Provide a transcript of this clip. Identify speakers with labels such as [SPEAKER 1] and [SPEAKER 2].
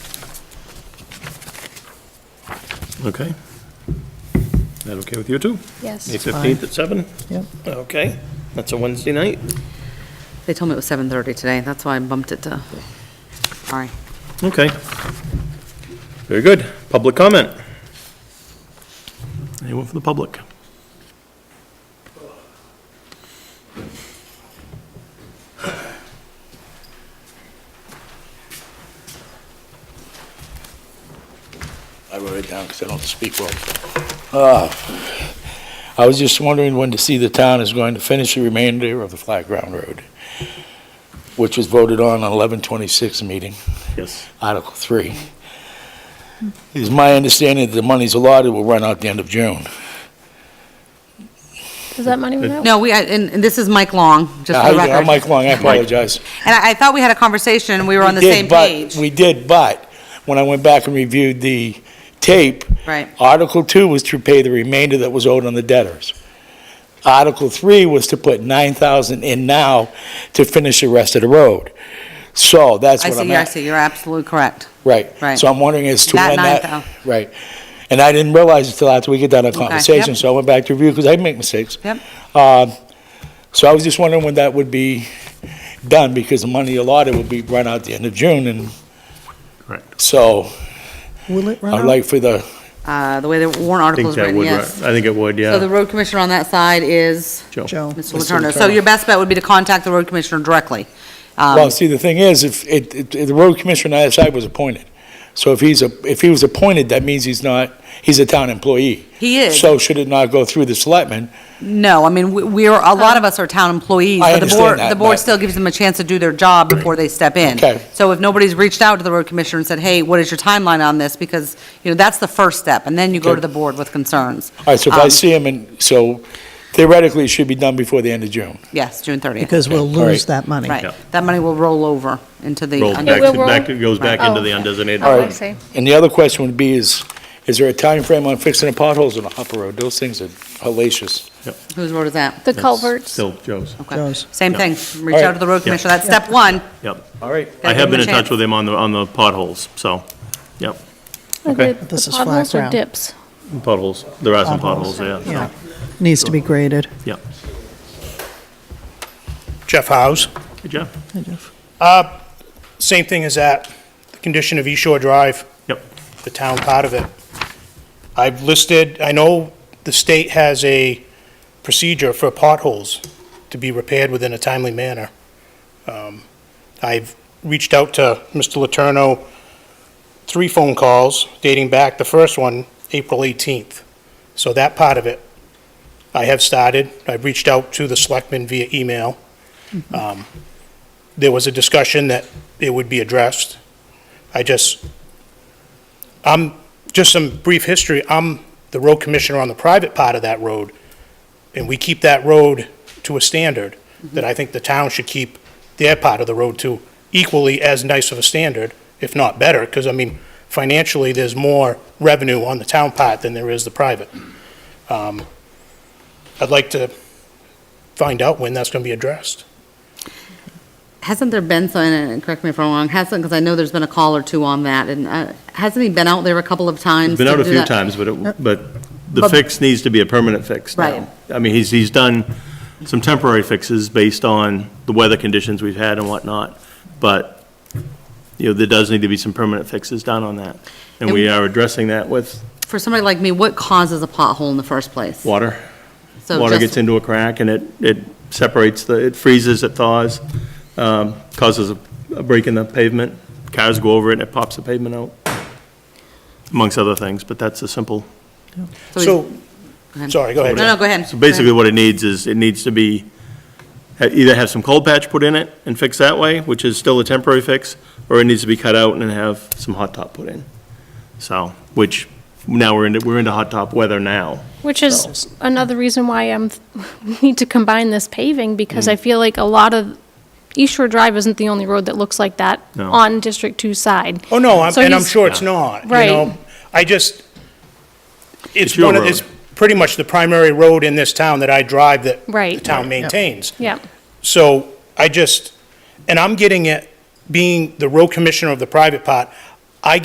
[SPEAKER 1] Okay. That okay with you too? May
[SPEAKER 2] Yes.
[SPEAKER 1] 15th at 7?
[SPEAKER 3] Yep.
[SPEAKER 1] Okay, that's a Wednesday night.
[SPEAKER 4] They told me it was 7:30 today, that's why I bumped it to, sorry.
[SPEAKER 1] Okay. Very good. Public comment? Anyone from the public?
[SPEAKER 5] I wrote it down because I don't speak well. Ah, I was just wondering when to see the town is going to finish the remainder of the Flat Ground Road, which was voted on on 11/26 meeting,
[SPEAKER 1] Yes.
[SPEAKER 5] Article 3. It is my understanding that the monies allotted will run out the end of June.
[SPEAKER 2] Does that money run out?
[SPEAKER 4] No, we, I- and and this is Mike Long, just for the
[SPEAKER 5] Now,
[SPEAKER 4] record.
[SPEAKER 5] I'm Mike Long, I apologize.
[SPEAKER 4] And I I thought we had a conversation, and we were on the
[SPEAKER 5] did,
[SPEAKER 4] same
[SPEAKER 5] but-
[SPEAKER 4] page.
[SPEAKER 5] We did, but when I went back and reviewed the tape,
[SPEAKER 4] Right.
[SPEAKER 5] Article two was to pay the remainder that was owed on the debtors. Article three was to put nine thousand in now to finish the rest of the road. So that's
[SPEAKER 4] I
[SPEAKER 5] what
[SPEAKER 4] see,
[SPEAKER 5] I'm
[SPEAKER 4] I
[SPEAKER 5] at.
[SPEAKER 4] see, you're absolutely correct.
[SPEAKER 5] Right.
[SPEAKER 4] Right.
[SPEAKER 5] So I'm wondering as to
[SPEAKER 4] That
[SPEAKER 5] when that,
[SPEAKER 4] 9,000.
[SPEAKER 5] right. And I didn't realize until after we get done our
[SPEAKER 4] yep.
[SPEAKER 5] conversation, so I went back to review because I make mistakes.
[SPEAKER 4] Yep.
[SPEAKER 5] Um, So I was just wondering when that would be done, because the money allotted would be run out the end of June, and
[SPEAKER 1] Correct.
[SPEAKER 5] so
[SPEAKER 3] Will it run
[SPEAKER 5] I'd
[SPEAKER 3] out?
[SPEAKER 5] like for the,
[SPEAKER 4] Uh, The way the warrant
[SPEAKER 1] I
[SPEAKER 4] article
[SPEAKER 1] think
[SPEAKER 4] is
[SPEAKER 1] that
[SPEAKER 4] written,
[SPEAKER 1] would, I
[SPEAKER 4] yes.
[SPEAKER 1] think it would,
[SPEAKER 4] So the
[SPEAKER 1] yeah.
[SPEAKER 4] road commissioner on that side is
[SPEAKER 3] Joe.
[SPEAKER 4] Mr. Letourneau. So your best bet would be to contact the road commissioner directly. Um,
[SPEAKER 5] well, see, the thing is, if, it, it- the road commissioner on that side was appointed. So if he's, a if he was appointed, that means he's not, he's a town employee.
[SPEAKER 4] He is,
[SPEAKER 5] So should it not go through the selectmen?
[SPEAKER 4] no, I mean, we- we're, a lot of us are town employees. but
[SPEAKER 5] I
[SPEAKER 4] the
[SPEAKER 5] understand
[SPEAKER 4] board-
[SPEAKER 5] that,
[SPEAKER 4] The board
[SPEAKER 5] but-
[SPEAKER 4] still gives them a chance to do their job before they step in.
[SPEAKER 5] Okay.
[SPEAKER 4] So if nobody's reached out to the road commissioner and said, hey, what is your timeline on this? Because, you know, that's the first step, and then you go to
[SPEAKER 5] Okay.
[SPEAKER 4] the board with concerns.
[SPEAKER 5] All right, so if I
[SPEAKER 4] Um,
[SPEAKER 5] see him, and, so theoretically, it should be done before the end of June.
[SPEAKER 4] Yes, June 30th,
[SPEAKER 3] Because we'll
[SPEAKER 5] Okay, all right.
[SPEAKER 3] lose that money.
[SPEAKER 4] right.
[SPEAKER 1] Yeah.
[SPEAKER 4] That money will roll over into the.
[SPEAKER 1] Rolls
[SPEAKER 4] under-
[SPEAKER 1] back,
[SPEAKER 2] will
[SPEAKER 1] to-
[SPEAKER 2] roll-
[SPEAKER 1] back, it goes back into the undesignated.
[SPEAKER 2] Oh, I
[SPEAKER 5] Alright.
[SPEAKER 2] see.
[SPEAKER 5] And the other question would be is, is there a time frame on fixing the potholes on the Hopper Road? Those things are hellacious.
[SPEAKER 4] Whose road is that?
[SPEAKER 2] The
[SPEAKER 1] That's
[SPEAKER 2] culverts?
[SPEAKER 1] Still Joe's.
[SPEAKER 4] Okay.
[SPEAKER 3] Joe's.
[SPEAKER 4] Same thing, reach
[SPEAKER 5] All
[SPEAKER 4] out
[SPEAKER 5] right.
[SPEAKER 4] to the road
[SPEAKER 1] Yeah.
[SPEAKER 4] commissioner, that's step one.
[SPEAKER 1] Yep.
[SPEAKER 5] All right.
[SPEAKER 1] I
[SPEAKER 4] Gotta
[SPEAKER 1] have
[SPEAKER 4] give
[SPEAKER 1] been
[SPEAKER 4] him
[SPEAKER 1] in
[SPEAKER 4] a
[SPEAKER 1] touch
[SPEAKER 4] chance.
[SPEAKER 1] with him on the, on the potholes, so, yep,
[SPEAKER 2] Are
[SPEAKER 1] Okay.
[SPEAKER 2] they
[SPEAKER 3] This is flat
[SPEAKER 2] Potholes or
[SPEAKER 3] ground.
[SPEAKER 2] dips?
[SPEAKER 1] potholes. There are some potholes, yeah. so,
[SPEAKER 3] Yeah. Needs to be graded.
[SPEAKER 1] Yep.
[SPEAKER 6] Jeff House.
[SPEAKER 1] Hey, Jeff?
[SPEAKER 6] Same thing as that, the condition of East Shore Drive,
[SPEAKER 1] Yep.
[SPEAKER 6] the town part of it. I've listed, I know the state has a procedure for potholes to be repaired within a timely manner. Um, I've reached out to Mr. Letourneau, three phone calls dating back, the first one, April 18th. So that part of it, I have started. I've reached out to the selectmen via email. Um, There was a discussion that it would be addressed. I just, I'm, just some brief history, I'm the road commissioner on the private part of that road, and we keep that road to a standard that I think the town should keep their part of the road to equally as nice of a standard, if not better, because, I mean, financially, there's more revenue on the town part than there is the private. Um, I'd like to find out when that's going to be addressed.
[SPEAKER 4] Hasn't there been, so- and correct me if I'm wrong, hasn't, because I know there's been a call or two on that, and uh, hasn't he been out there a couple of times?
[SPEAKER 1] Been
[SPEAKER 4] to
[SPEAKER 1] out a
[SPEAKER 4] do
[SPEAKER 1] few
[SPEAKER 4] that?
[SPEAKER 1] times, but, it- but the
[SPEAKER 4] But-
[SPEAKER 1] fix needs to be a permanent fix now.
[SPEAKER 4] Right.
[SPEAKER 1] I mean, he's, he's done some temporary fixes based on the weather conditions we've had and whatnot, but, you know, there does need to be some permanent fixes done on that. And we are addressing that with
[SPEAKER 4] For somebody like me, what causes a pothole in the first place?
[SPEAKER 1] water.
[SPEAKER 4] So
[SPEAKER 1] Water
[SPEAKER 4] just-
[SPEAKER 1] gets into a crack and it, it separates the, it freezes, it thaws, um, causes a a break in the pavement. Cars go over it and it pops the pavement out, amongst other things, but that's a simple
[SPEAKER 4] he-
[SPEAKER 6] So,
[SPEAKER 4] ahead.
[SPEAKER 6] sorry, go ahead.
[SPEAKER 4] No, no, go ahead.
[SPEAKER 1] So basically, what it needs is, it needs to be, ha- either have some cold patch put in it and fixed that way, which is still a temporary fix, or it needs to be cut out and have some hot top put in. So, which, now we're into, we're into hot top weather now.
[SPEAKER 2] Which is another reason why I'm, we need to combine this paving, because
[SPEAKER 1] Hmm.
[SPEAKER 2] I feel like a lot of, East Shore Drive isn't the only road that looks like that
[SPEAKER 1] No.
[SPEAKER 2] on District Two side.
[SPEAKER 6] Oh, no, I'm-
[SPEAKER 2] So
[SPEAKER 6] and I'm
[SPEAKER 2] he's-
[SPEAKER 6] sure it's not, you
[SPEAKER 2] Right.
[SPEAKER 6] know? I just, it's
[SPEAKER 1] your
[SPEAKER 6] one of,
[SPEAKER 1] road.
[SPEAKER 6] it's pretty much the primary road in this town that I drive that
[SPEAKER 2] Right.
[SPEAKER 6] the town maintains.
[SPEAKER 2] Yeah,
[SPEAKER 6] So I just, and I'm getting it, being the road commissioner of the private part,